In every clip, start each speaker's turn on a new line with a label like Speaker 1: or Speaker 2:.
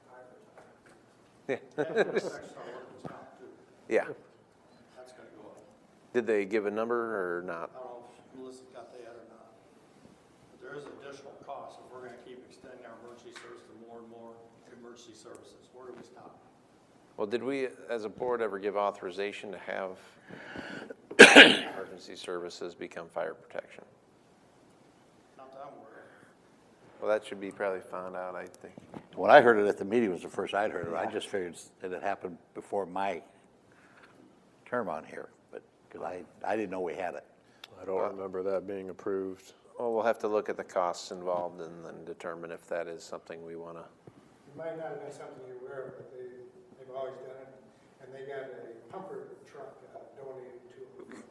Speaker 1: Yeah.
Speaker 2: That's gonna go up.
Speaker 1: Did they give a number or not?
Speaker 2: I don't know if Melissa's got that or not. But there is additional cost if we're gonna keep extending our emergency service to more and more emergency services. Where do we stop?
Speaker 1: Well, did we, as a board, ever give authorization to have emergency services become fire protection?
Speaker 2: Not that I'm worried.
Speaker 1: Well, that should be probably found out, I think.
Speaker 3: When I heard it at the meeting was the first I'd heard it. I just figured that it happened before my term on here, but, because I, I didn't know we had it.
Speaker 4: I don't remember that being approved.
Speaker 1: Well, we'll have to look at the costs involved and then determine if that is something we want to.
Speaker 5: It might not have been something you're aware of, but they, they've always done it. And they got a pumper truck uh, donated to them,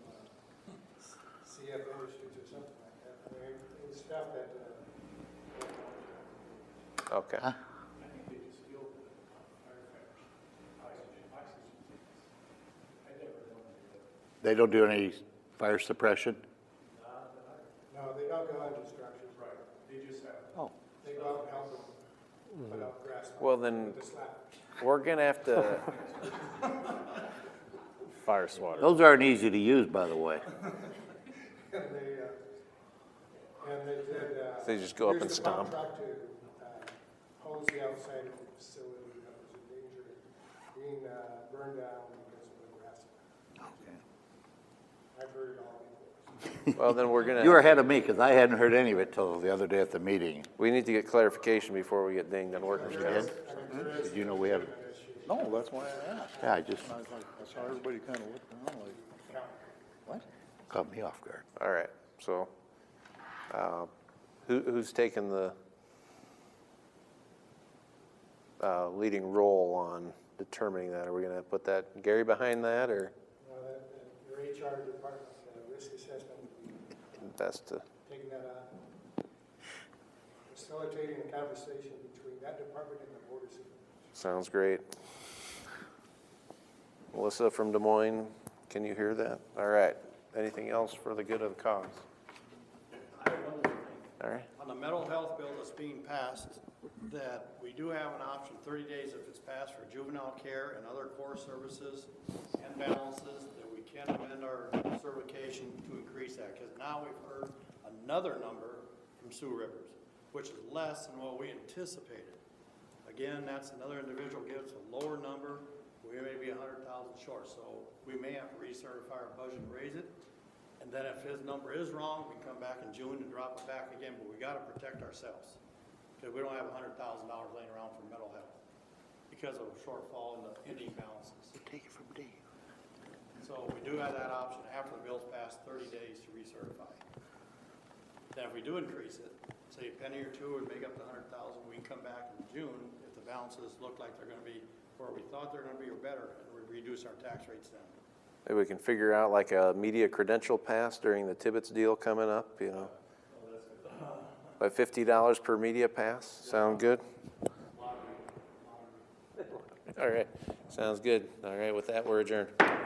Speaker 5: uh, CF Industries or something like that. I mean, it was stuff that, uh,
Speaker 1: Okay.
Speaker 3: They don't do any fire suppression?
Speaker 5: no, they don't go into structures. Right, they just have.
Speaker 3: Oh.
Speaker 5: They go out and help them put out grass.
Speaker 1: Well, then,
Speaker 5: With the slap.
Speaker 1: we're going to have to,
Speaker 4: Fire swatter.
Speaker 3: Those aren't easy to use, by the way.
Speaker 5: And they, uh, and they did, uh.
Speaker 1: They just go up
Speaker 5: here's
Speaker 1: and
Speaker 5: the pump
Speaker 1: stomp.
Speaker 5: Truck to, uh, hose the outside of the facility that was in danger of being, uh, burned down because of the grass. I've heard it all before.
Speaker 1: well, then we're going
Speaker 3: You were
Speaker 1: to,
Speaker 3: ahead of me, because I hadn't heard any of it till the other day at the meeting.
Speaker 1: we need to get clarification before we get dinged on workers' comp.
Speaker 3: Did you know we had it?
Speaker 4: No, that's why I asked.
Speaker 3: Yeah, I just,
Speaker 4: I was like, I saw everybody kind of looking around like,
Speaker 3: what? Caught me off guard.
Speaker 1: All right, so, uh, who, who's taking the, uh, leading role on determining that? Are we gonna put that Gary behind that, or
Speaker 5: Now that, that your HR department, uh, risk assessment,
Speaker 1: best to,
Speaker 5: taking that on. Facilitating a conversation between that department and the board of supervisors.
Speaker 1: sounds great. Melissa from Des Moines, can you hear that? All right, anything else for the good of the cause? All right,
Speaker 2: On the mental health bill that's being passed, that we do have an option, thirty days if it's passed for juvenile care and other core services and balances, that we can amend our certification to increase that, because now we've heard another number from Sioux Rivers, which is less than what we anticipated. Again, that's another individual gives a lower number, we may be a hundred thousand short, so we may have to recertify our budget and raise it. And then if his number is wrong, we can come back in June and drop it back again, but we gotta protect ourselves. Because we don't have a hundred thousand dollars laying around for mental health because of a shortfall in the ending balances.
Speaker 3: Take it from D.
Speaker 2: So we do have that option after the bill's passed, thirty days to recertify. Then if we do increase it, say a penny or two would make up the hundred thousand, we can come back in June if the balances look like they're gonna be where we thought they're gonna be or better, and we reduce our tax rates then.
Speaker 1: maybe we can figure out like a media credential pass during the Tibbetts deal coming up, you know? By fifty dollars per media pass, sound good? All right, sounds good. All right, with that, we're adjourned.